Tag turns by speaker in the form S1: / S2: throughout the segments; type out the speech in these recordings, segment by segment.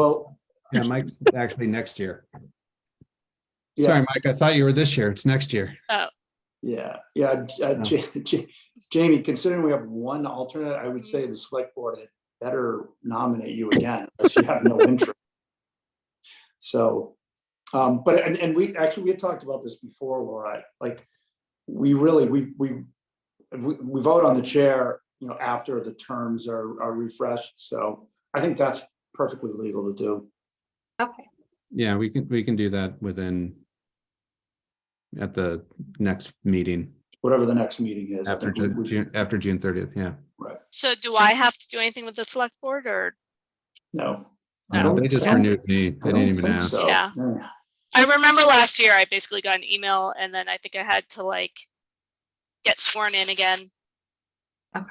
S1: Well, yeah, Mike's actually next year.
S2: Yeah.
S3: Sorry, Mike, I thought you were this year. It's next year.
S2: Yeah, yeah, J- uh,
S1: Yeah.
S2: J- J- Jamie, considering we have one alternate, I would say the select board had better nominate you again, unless you have no interest. So, um, but, and, and we, actually, we had talked about this before, Laura, like, we really, we, we, we, we vote on the chair, you know, after the terms are, are refreshed, so I think that's perfectly legal to do.
S4: Okay,
S3: Yeah, we can, we can do that within at the next meeting
S2: Whatever the next meeting is. I
S3: after
S2: think we-
S3: Ju-
S2: we-
S3: June, after June thirtieth, yeah.
S5: So do I have to do anything with the select board or,
S2: No. I
S3: Yeah,
S2: don't-
S3: They just
S2: I don't-
S3: renewed me.
S2: I
S3: They didn't
S2: don't
S3: even
S2: think
S3: ask.
S2: so.
S5: Yeah. I remember last year I basically got an email and then I think I had to like get sworn in again.
S4: Okay.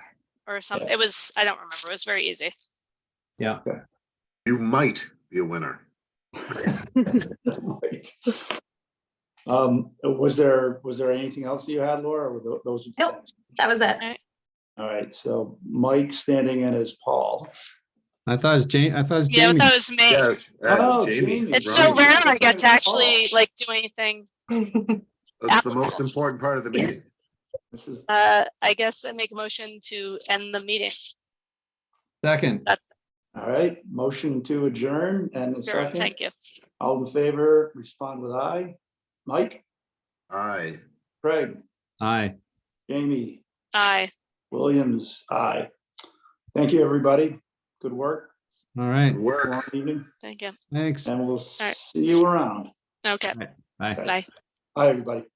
S5: Or something.
S2: Yeah.
S5: It was, I don't remember. It was very easy.
S1: Yeah,
S6: You might be a winner.
S2: Right. Um, was there, was there anything else that you had, Laura, or were tho- those?
S4: Nope. that was it.
S2: All right, so Mike standing in as Paul.
S3: I thought it was Jane, I thought it was
S5: Yeah,
S3: Jamie.
S5: but that was me.
S6: Yes. uh,
S2: Oh,
S6: Jamie,
S2: Jamie.
S5: It's so
S6: right.
S5: rare I get to
S2: Oh.
S5: actually like do anything.
S6: That's the most important part of the meeting.
S2: This is,
S5: Uh, I guess I make a motion to end the meeting.
S3: Second,
S2: all right, motion to adjourn and a
S5: Sure,
S2: second,
S5: thank you.
S2: all in favor, respond with aye. Mike,
S6: Aye.
S2: Craig,
S3: aye.
S2: Jamie,
S5: Aye.
S2: Williams, aye. Thank you, everybody. Good work.
S3: All right,
S6: Good work.
S2: Long evening,
S5: Thank you.
S3: thanks.
S2: and we'll
S5: right.
S2: see you around.
S5: Okay,
S3: Bye.
S5: bye.
S2: Bye, everybody.